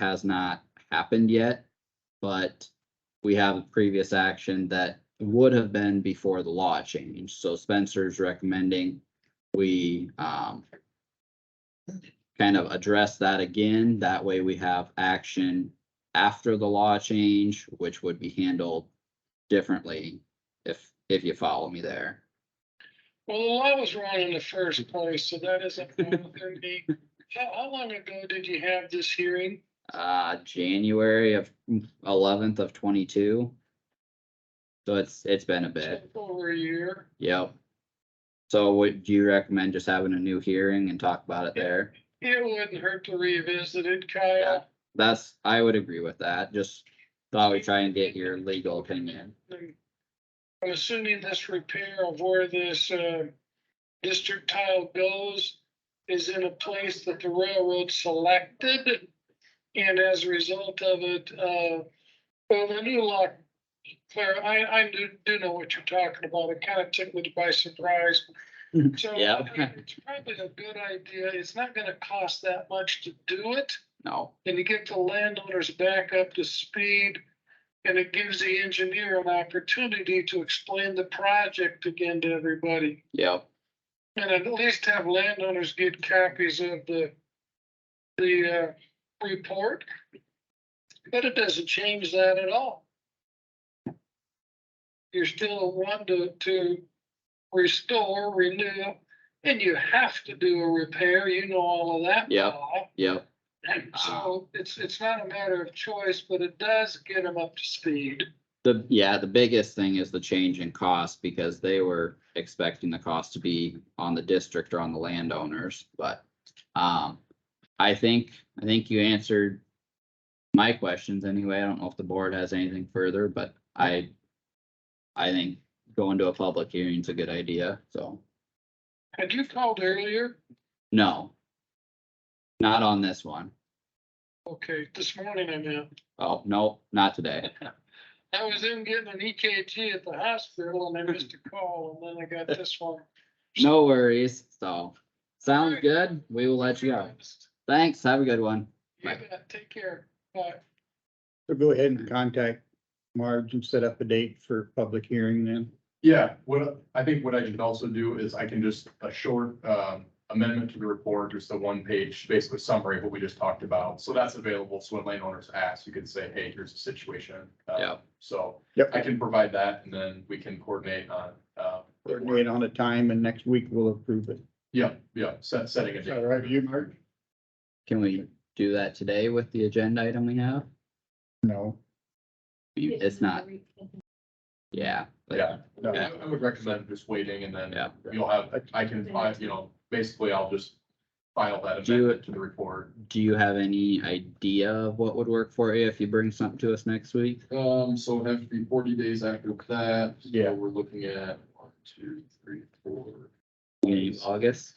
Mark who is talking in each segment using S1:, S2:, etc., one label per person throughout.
S1: has not happened yet, but we have previous action that would have been before the law changed. So Spencer's recommending we um kind of address that again. That way we have action after the law change, which would be handled differently if if you follow me there.
S2: Well, I was wrong in the first place, so that isn't wrong with me. How, how long ago did you have this hearing?
S1: Uh, January of eleventh of twenty-two. So it's it's been a bit.
S2: Over a year.
S1: Yep. So would you recommend just having a new hearing and talk about it there?
S2: It wouldn't hurt to revisit it, Kyle.
S1: That's, I would agree with that. Just thought we try and get your legal opinion.
S2: I'm assuming this repair of where this, uh, district tile goes is in a place that the railroad selected. And as a result of it, uh, well, the new law, Claire, I, I do, do know what you're talking about. It kind of took me by surprise. So
S1: Yeah.
S2: It's probably a good idea. It's not gonna cost that much to do it
S1: No,
S2: and to get the landowners back up to speed. And it gives the engineer an opportunity to explain the project again to everybody.
S1: yep,
S2: And at least have landowners get copies of the, the, uh, report. But it doesn't change that at all. You're still one to, to restore, renew, and you have to do a repair, you know all of that.
S1: Yep.
S2: Paul.
S1: yep,
S2: So Oh, it's, it's not a matter of choice, but it does get them up to speed.
S1: the, yeah, the biggest thing is the change in cost because they were expecting the cost to be on the district or on the landowners, but um, I think, I think you answered my questions anyway. I don't know if the board has anything further, but I I think going to a public hearing is a good idea, so,
S2: Had you called earlier?
S1: no. Not on this one.
S2: Okay, this morning I meant.
S1: Oh, no, not today.
S2: I was in getting an EKG at the hospital and I missed a call and then I got this one.
S1: No worries, so, sounds good. We will let you go. Thanks, have a good one.
S2: You bet. Take care. Bye.
S3: So go ahead and contact Marge and set up a date for public hearing then.
S4: Yeah, what, I think what I can also do is I can just a short um, amendment to the report, just a one page, basically summary of what we just talked about. So that's available. So when landowners ask, you can say, hey, here's the situation. Uh,
S1: Yeah.
S4: So
S3: Yep.
S4: I can provide that and then we can coordinate on. uh,
S3: Coordinate on a time and next week we'll approve it.
S4: Yeah, yeah, set, setting a
S3: Is
S4: date.
S3: that all right with you, Marge?
S1: Can we do that today with the agenda item we have?
S3: No,
S1: It's not, yeah. but-
S4: Yeah,
S3: no.
S4: I I would recommend just waiting and then
S1: Yeah.
S4: you'll have, I can, fi- you know, basically I'll just file that
S1: Do you-
S4: amendment to the report.
S1: Do you have any idea of what would work for you if you bring something to us next week?
S4: Um, so it'd have to be forty days after that. So
S3: Yeah.
S4: We're looking at one, two, three, four,
S1: Maybe August?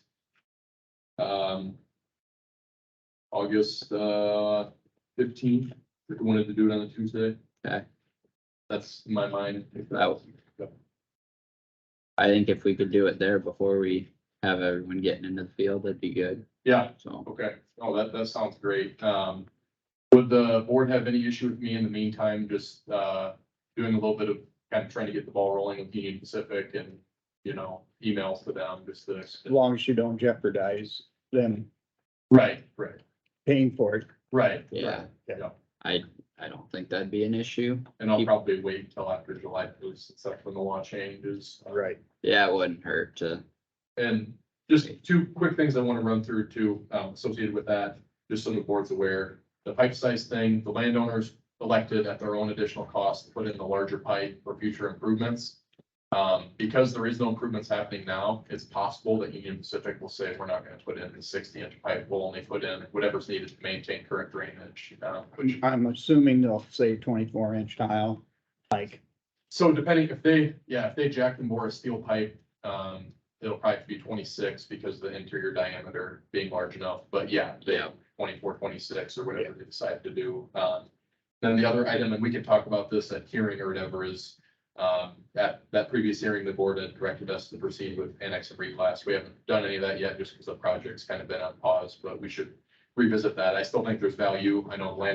S4: um. August, uh, fifteenth, if we wanted to do it on a Tuesday.
S1: Okay.
S4: That's in my mind. if
S1: That- I think if we could do it there before we have everyone getting into the field, that'd be good,
S4: Yeah,
S1: so.
S4: okay. Oh, that, that sounds great. Um, would the board have any issue with me in the meantime, just, uh, doing a little bit of kind of trying to get the ball rolling with Union Pacific and, you know, emails to them, just to
S3: as long as you don't jeopardize them
S4: Right, right,
S3: paying for it.
S4: right.
S1: Yeah.
S4: right, Yeah,
S1: I, I don't think that'd be an issue.
S4: and I'll
S1: Keep-
S4: probably wait until after July first, except when the law changes.
S1: Yeah, it wouldn't hurt to,
S4: And just two quick things I want to run through too, um, associated with that, just so the board's aware. The pipe size thing, the landowners elected at their own additional cost, to put in the larger pipe for future improvements. Um, because there is no improvements happening now, it's possible that Union Pacific will say, we're not gonna put in the sixty inch pipe, we'll only put in whatever's needed to maintain current drainage. um, which
S3: I'm assuming they'll say twenty-four inch tile, like,
S4: So depending if they, yeah, if they jack and bore a steel pipe, um, it'll probably have to be twenty-six because of the interior diameter being large enough, but yeah, they
S1: Yeah.
S4: 24, 26, or whatever they decide to do. Um, then the other item, and we can talk about this at hearing or whatever, is um, that, that previous hearing, the board had directed us to proceed with annex and reclass. We haven't done any of that yet just because the project's kind of been on pause, but we should revisit that. I still think there's value. I know land